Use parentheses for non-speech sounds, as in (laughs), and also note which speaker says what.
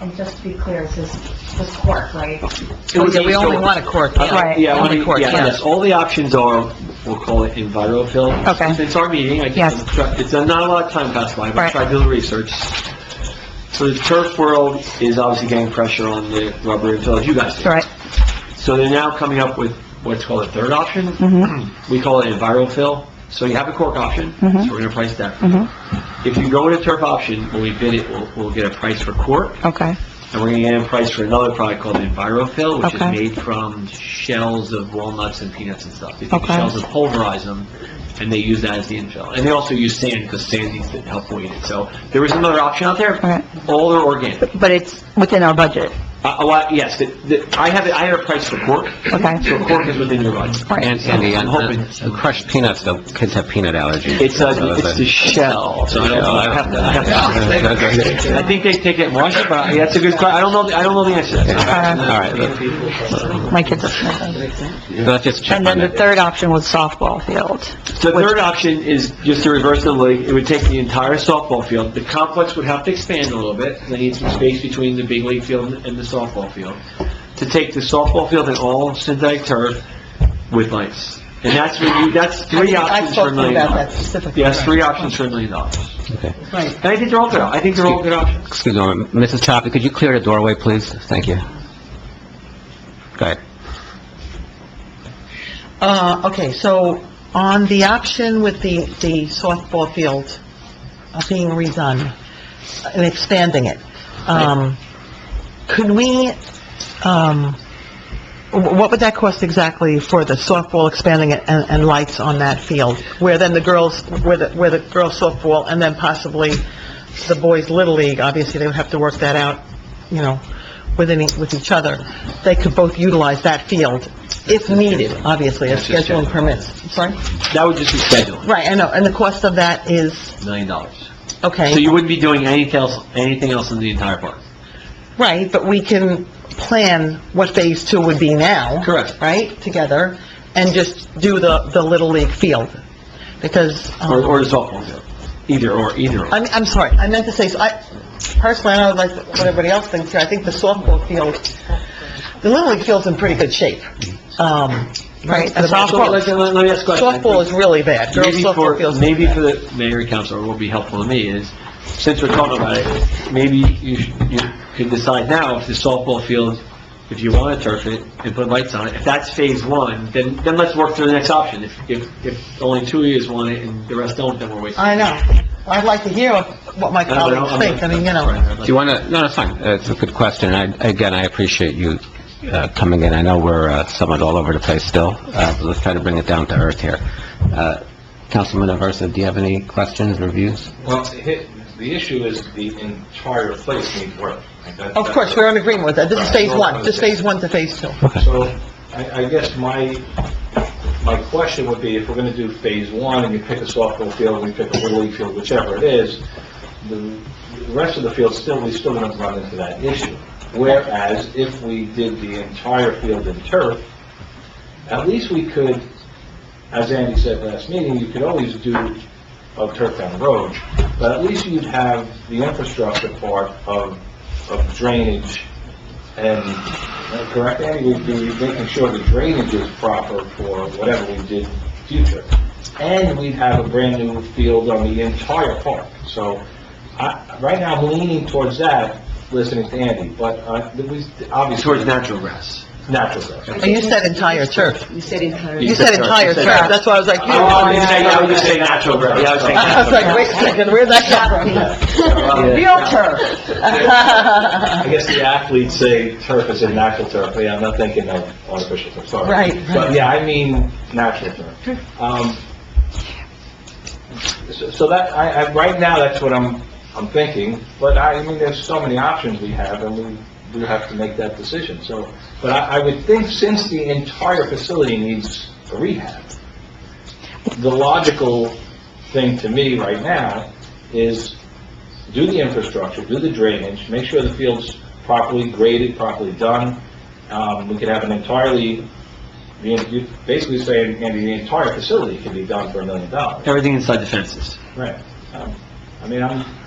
Speaker 1: And just to be clear, it's this, this court, right?
Speaker 2: It would be-
Speaker 3: We only
Speaker 2: so-
Speaker 3: want a court,
Speaker 2: Uh,
Speaker 3: yeah.
Speaker 1: Right.
Speaker 2: Yeah,
Speaker 3: Only
Speaker 2: only,
Speaker 3: court,
Speaker 2: yeah,
Speaker 3: yeah.
Speaker 2: yes, all the options are, we'll call it EnviroFill.
Speaker 3: Okay.
Speaker 2: It's our meeting, I
Speaker 3: Yes.
Speaker 2: guess, it's, uh, not a lot of time passed by, but I
Speaker 3: Right.
Speaker 2: tried doing research. So the turf world is obviously getting pressure on the rubber infill, as you guys do.
Speaker 3: Right,
Speaker 2: So they're now coming up with what's called a third option.
Speaker 3: Mm-hmm.
Speaker 2: We call it EnviroFill. So you have a cork option, so
Speaker 3: Mhm.
Speaker 2: we're gonna price that.
Speaker 3: Mhm.
Speaker 2: If you go with a turf option, when we bid it, we'll, we'll get a price for cork,
Speaker 3: okay,
Speaker 2: and we're gonna get a price for another product called EnviroFill, which is
Speaker 3: Okay.
Speaker 2: made from shells of walnuts and peanuts and stuff. They take the
Speaker 3: Okay.
Speaker 2: shells and pulverize them, and they use that as the infill. And they also use sand, because sand needs to help weight it. So there is another option out there.
Speaker 3: Okay.
Speaker 2: All are organic.
Speaker 3: but it's within our budget,
Speaker 2: Uh, a lot, yes, the, the, I have, I have a price for cork,
Speaker 3: okay?
Speaker 2: so cork is within your budget.
Speaker 3: Right.
Speaker 4: And Sandy,
Speaker 2: I'm
Speaker 4: on
Speaker 2: hoping-
Speaker 4: on uh, crushed peanuts, though, kids have peanut allergies.
Speaker 2: It's a,
Speaker 4: So
Speaker 2: it's the shell, so I don't know, I have to, I have
Speaker 4: (laughs)
Speaker 2: to. I think they take it in Washington, but that's a good question, I don't know, I don't know the answer to that.
Speaker 3: Uh,
Speaker 4: All right,
Speaker 3: My kids are sniffing.
Speaker 4: let's just check on
Speaker 3: And
Speaker 4: that.
Speaker 3: then the third option was softball field.
Speaker 2: The third option is just to reverse the league, it would take the entire softball field, the complex would have to expand a little bit, they need some space between the big league field and the softball field, to take the softball field and all synthetic turf with lights. And that's what you, that's three options for a million dollars.
Speaker 3: specifically.
Speaker 2: Yes, three options for a million dollars.
Speaker 4: Okay.
Speaker 3: Right.
Speaker 2: And I think they're all good, I think they're all good options.
Speaker 4: Excuse me, Mrs. Choppy, could you clear the doorway, please? Thank you. Go ahead.
Speaker 5: Uh, okay, so on the option with the, the softball field uh, being redone and expanding it, um, could we, um, wh- what would that cost exactly for the softball expanding it and, and lights on that field? Where then the girls, where the, where the girls softball and then possibly the boys little league, obviously they would have to work that out, you know, within, e- with each other. They could both utilize that field if needed, obviously,
Speaker 2: That's
Speaker 5: as
Speaker 2: just
Speaker 5: scheduling
Speaker 2: general.
Speaker 5: permits. Sorry?
Speaker 2: That would just be scheduling,
Speaker 5: Right, I know, and the cost of that is,
Speaker 2: million dollars. So
Speaker 5: okay,
Speaker 2: you wouldn't be doing anything else, anything else in the entire park?
Speaker 5: right, but we can plan what Phase Two would be now.
Speaker 2: Correct.
Speaker 5: Right, together, and just do the, the Little League field, because,
Speaker 2: Or,
Speaker 5: um,
Speaker 2: or the softball field? Either or, either or.
Speaker 5: I'm, I'm sorry, I meant to say, so I, personally, I don't know like what everybody else thinks here, I think the softball field, the Little League field's in pretty good shape, um, right? and
Speaker 2: So let, let- let me ask a question.
Speaker 5: Softball is really bad, girls
Speaker 2: Maybe
Speaker 5: softball
Speaker 2: for,
Speaker 5: field's...
Speaker 2: maybe for the mayor and council, what would be helpful to me is, since we're talking about it, maybe you, sh- you could decide now if the softball field, if you want to turf it and put lights on it, if that's phase one, then, then let's work through the next option. If, if, if only two of you want it and the rest don't, then we're wasting.
Speaker 5: I know, I'd like to hear what my
Speaker 2: I don't- I don't-
Speaker 5: colleagues think, I mean, you know...
Speaker 2: Right, I'd
Speaker 4: Do
Speaker 2: like-
Speaker 4: you want to, no, that's fine, Uh, it's a good question, I, again, I appreciate you uh, coming in, I know we're uh, somewhat all over the place still, Uh, but let's try to bring it down to earth here. Uh, Councilman Aversa, do you have any questions, reviews?
Speaker 6: Well, the the issue is the entire place needs work. Like, that-
Speaker 5: Of
Speaker 6: that's-
Speaker 5: course, we're in agreement with that. This is phase
Speaker 6: Right.
Speaker 5: one, just phase one to phase two.
Speaker 6: So I, I guess my, my question would be, if we're going to do phase one, and you pick a softball field, and we pick a little league field, whichever it is, the the rest of the field still, we still going to run into that issue. Whereas if we did the entire field in turf, at least we could, as Andy said last meeting, you could always do a turf down the road, but at least you'd have the infrastructure part of, of drainage and, uh, correct, Andy, we'd be making sure the drainage is proper for whatever we did future. And we'd have a brand-new field on the entire park. So, I, right now, I'm leaning towards that, listening to Andy, but, uh, we, obviously...
Speaker 2: Towards natural grass.
Speaker 6: Natural grass.
Speaker 5: And you said entire turf.
Speaker 1: You said entire.
Speaker 5: You said Oh, entire turf, that's why I was like, you- I
Speaker 2: would say natural grass. Yeah, I would
Speaker 5: (laughs)
Speaker 2: say
Speaker 5: was like, wait a second, where'd that come from? Real (laughs) turf.
Speaker 6: I guess the athletes say turf is a natural turf, yeah, I'm not thinking of artificial turf, sorry.
Speaker 5: Right,
Speaker 6: But yeah, I mean natural turf. Um, so- So that, I, I, right now, that's what I'm, I'm thinking, but I, I mean, there's so many options we have, and we, we have to make that decision, so. But I, I would think since the entire facility needs a rehab, the logical thing to me right now is do the infrastructure, do the drainage, make sure the field's properly graded, properly done. Um, we could have an entirely, the- you basically saying, Andy, the entire facility can be done for a million dollars.
Speaker 2: Everything inside the fences.
Speaker 6: Right. Um, I mean, I'm,